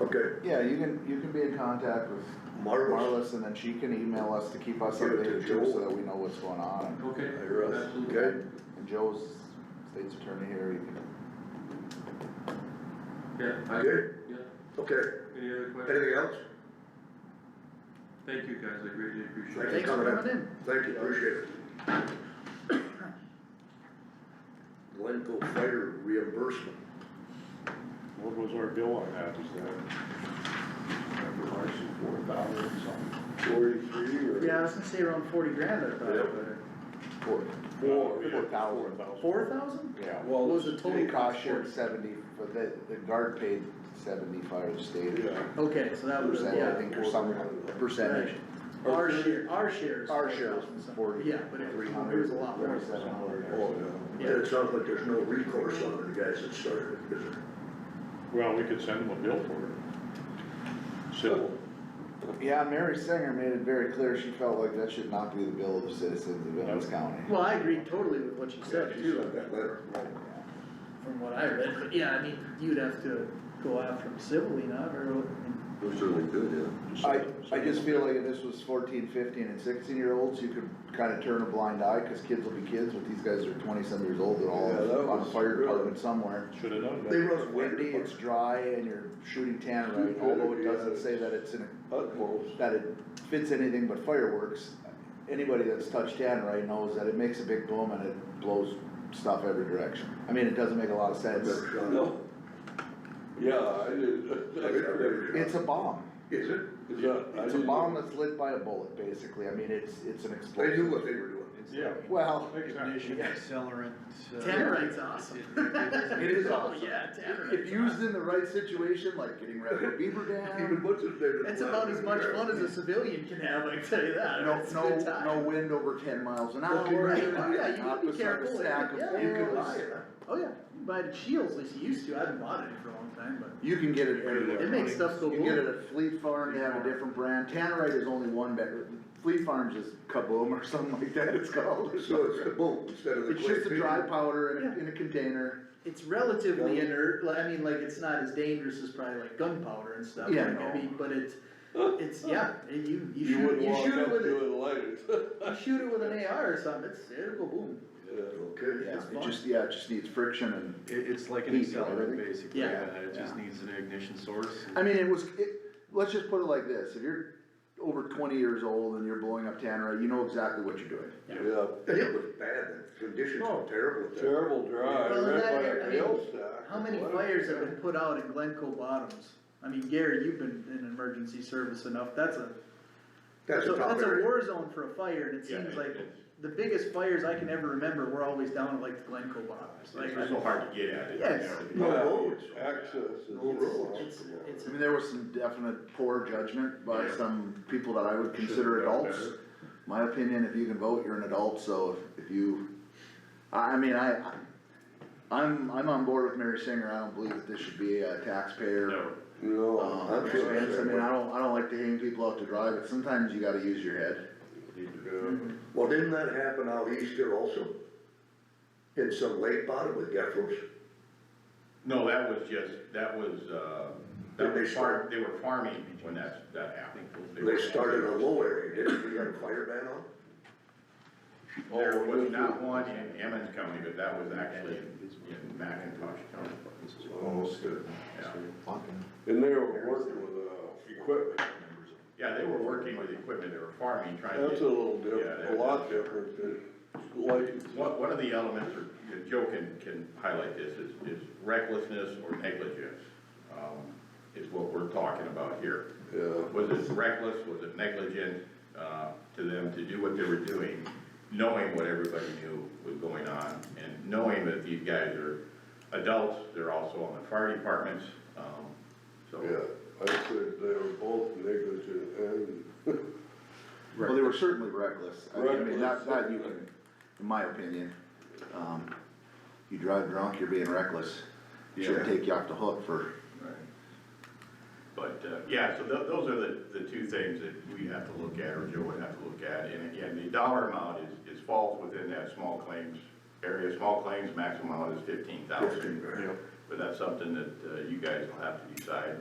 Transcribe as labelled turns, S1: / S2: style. S1: Okay,
S2: Yeah, you can, you can be in contact with
S1: marvelous.
S2: Marlis and then she can email us to keep us
S1: Give it to
S2: updated too,
S1: Joe.
S2: so that we know what's going on.
S3: Okay,
S1: Hey, Russ,
S3: absolutely.
S1: okay?
S2: And Joe's state's attorney here, you can
S3: Yeah, I,
S1: Good.
S3: yeah,
S1: Okay,
S3: any other questions?
S1: anything else?
S3: Thank you guys, I greatly appreciate it.
S1: Thank you
S4: Thanks for
S1: coming in.
S4: coming in.
S1: Thank you, appreciate it. Glencoe Fire reimbursement.
S5: What was our bill on that, is that? Four thousand something.
S1: Forty-three
S4: Yeah, I was gonna say around forty grand, I thought, but
S2: forward.
S5: Four.
S2: Four thousand.
S4: four thousand?
S2: Yeah.
S4: What was the total
S2: It cost
S4: cost?
S2: shared seventy, for the, the guard paid seventy-five to state.
S5: Yeah.
S4: Okay, so that was,
S2: Percent, I
S4: yeah,
S2: think, or some percentage.
S4: our share, our shares.
S2: Our share was forty.
S4: Yeah, but it was, it was a lot more.
S2: Forty-seven hundred.
S1: Oh, yeah. It sounds like there's no recourse on the guys that started it, is there?
S5: Well, we could send them a bill for it. Civil,
S2: Yeah, Mary Singer made it very clear, she felt like that should not be the bill of the citizens of Evans County.
S4: Well, I agree totally with what you said
S1: She sent
S4: too,
S1: that letter.
S4: from what I read, but yeah, I mean, you'd have to go after them civilly, not very, and
S6: We certainly could, yeah.
S2: I, I just feel like if this was 14, 15, and sixteen year olds, you could kinda turn a blind eye, cause kids will be kids, but these guys are twenty-some years old, they're all
S1: Yeah, that
S2: on a
S1: was
S2: fire
S1: really-
S2: department somewhere.
S5: Should have done
S1: They
S5: that.
S1: run
S2: Windy,
S1: windy,
S2: it's dry, and you're shooting tannerite, although it doesn't say that it's in, a-
S1: utmost.
S2: that it fits anything but fireworks. Anybody that's touched tannerite knows that it makes a big boom and it blows stuff every direction. I mean, it doesn't make a lot of sense,
S1: No. Yeah, I did.
S2: it's a bomb,
S1: Is it?
S2: it's a bomb that's lit by a bullet, basically, I mean, it's, it's an
S1: They
S2: explosive.
S1: knew what they were doing.
S5: Yeah.
S2: Well,
S5: Exactly.
S7: accelerant. uh,
S4: Tannerite's awesome.
S2: It is
S4: Oh,
S2: awesome.
S4: yeah,
S2: if
S4: Tannerite's
S2: used in the right situation, like getting rid of a beaver
S1: Even
S2: dam,
S1: Butch is there.
S4: That's about as much fun as a civilian can have, I can tell you that.
S2: no,
S4: It's a
S2: no,
S4: good time.
S2: no wind over ten miles an
S4: Okay,
S2: hour.
S4: right.
S2: you buy
S4: Yeah,
S2: an
S4: you gotta be
S2: opposite
S4: careful.
S2: Stack of
S4: Yeah. You could
S2: bills.
S4: buy Oh, yeah, you buy the shields, at least you used to, I haven't bought any for a long time, but.
S2: You can get it everywhere.
S4: It makes stuff go
S2: You can get it
S4: boom.
S2: at Fleet Farm, they have a different brand, Tannerite is only one better, Fleet Farm's is Kaboom or something like that it's called.
S1: So it's the boom instead of the.
S2: It's just a
S1: click.
S2: dry powder in a,
S4: Yeah.
S2: in a container,
S4: It's relatively
S1: Yeah.
S4: inert, like, I mean, like, it's not as dangerous as probably like gunpowder and stuff,
S2: Yeah,
S4: like, I
S2: no.
S4: mean, but it's, it's, yeah, it- you, you shoot, you shoot it with, a- you shoot it with an AR or something, it's, it'll go boom.
S1: Okay.
S2: yeah,
S4: It's
S2: it
S4: fun.
S2: just, yeah, it just needs friction and
S7: It, it's like an
S2: Heat,
S7: accelerant,
S2: everything.
S7: basically,
S4: Yeah.
S7: yeah, it just needs an ignition source.
S2: I mean, it was, it, let's just put it like this, if you're over twenty years old and you're blowing up tannerite, you know exactly what you're doing.
S8: Yeah,
S1: It was bad, the conditions were terrible. at that.
S8: terrible dry,
S4: Well,
S8: right
S4: that-
S8: by
S4: I
S8: a
S4: mean,
S8: hailstack.
S4: How many
S8: What a-
S4: fires have been put out in Glencoe Bottoms? I mean, Gary, you've been in emergency service enough, that's a,
S1: That's
S4: So
S1: a top
S4: that's a
S1: area.
S4: war zone for a fire, and it
S5: Yeah,
S4: seems
S5: it
S4: like
S5: is.
S4: the biggest fires I can ever remember were always down at like the Glencoe bottoms, like,
S5: It's so hard to get at it.
S4: Yes.
S1: No
S8: Yeah,
S1: roads.
S8: Access is.
S1: No roads.
S4: it's, it's,
S2: I mean, there was some definite poor judgment by
S5: Yeah.
S2: some people that I would consider
S5: Should've done
S2: adults.
S5: better.
S2: My opinion, if you can vote, you're an adult, so if if you, I, I mean, I, I'm, I'm on board with Mary Singer, I don't believe that this should be a taxpayer.
S5: No,
S8: No,
S1: Oh,
S2: Um,
S8: I'm feeling
S2: expense, I
S8: that
S2: mean, I
S8: way.
S2: don't, I don't like to hang people out to dry, but sometimes you gotta use your head.
S8: Yeah.
S1: Well, didn't that happen out east here also? In some lake bottom with geckos?
S9: No, that was just, that was, uh,
S1: Did
S9: that
S1: they
S9: was farm,
S1: start-
S9: they were farming when that, that happened.
S1: They
S9: were-
S1: started a low area, didn't they? You got a fire ban on?
S9: There was not one in Emmons County, but that was actually in in Macintosh County.
S1: Oh, good.
S9: Yeah.
S8: And they were working with, uh, equipment,
S9: Yeah, they were working with equipment, they were farming, trying to
S8: that's a
S9: get,
S8: little
S9: Yeah,
S8: different,
S9: that-
S8: a lot different than lights.
S9: one, one of the elements, or you know, Joe can, can highlight this, is, is recklessness or negligence, um, is what we're talking about here.
S8: Yeah.
S9: Was it reckless, was it negligent, uh, to them to do what they were doing, knowing what everybody knew was going on, and knowing that these guys are adults, they're also on the fire departments, um, so.
S8: Yeah, I said they were both negligent and,
S2: Well, they were certainly reckless, I mean, I mean, that,
S8: Reckless,
S2: that you can,
S8: certainly.
S2: in my opinion, um, you drive drunk, you're being reckless. Shouldn't
S9: Yeah.
S2: take you off the hook for
S9: But, uh, yeah, so tho- those are the, the two things that we have to look at, or Joe would have to look at, and again, the dollar amount is, is falls within that small claims area, small claims maximum amount is fifteen thousand.
S1: Fifteen, right.
S9: But that's something that, uh, you guys will have to decide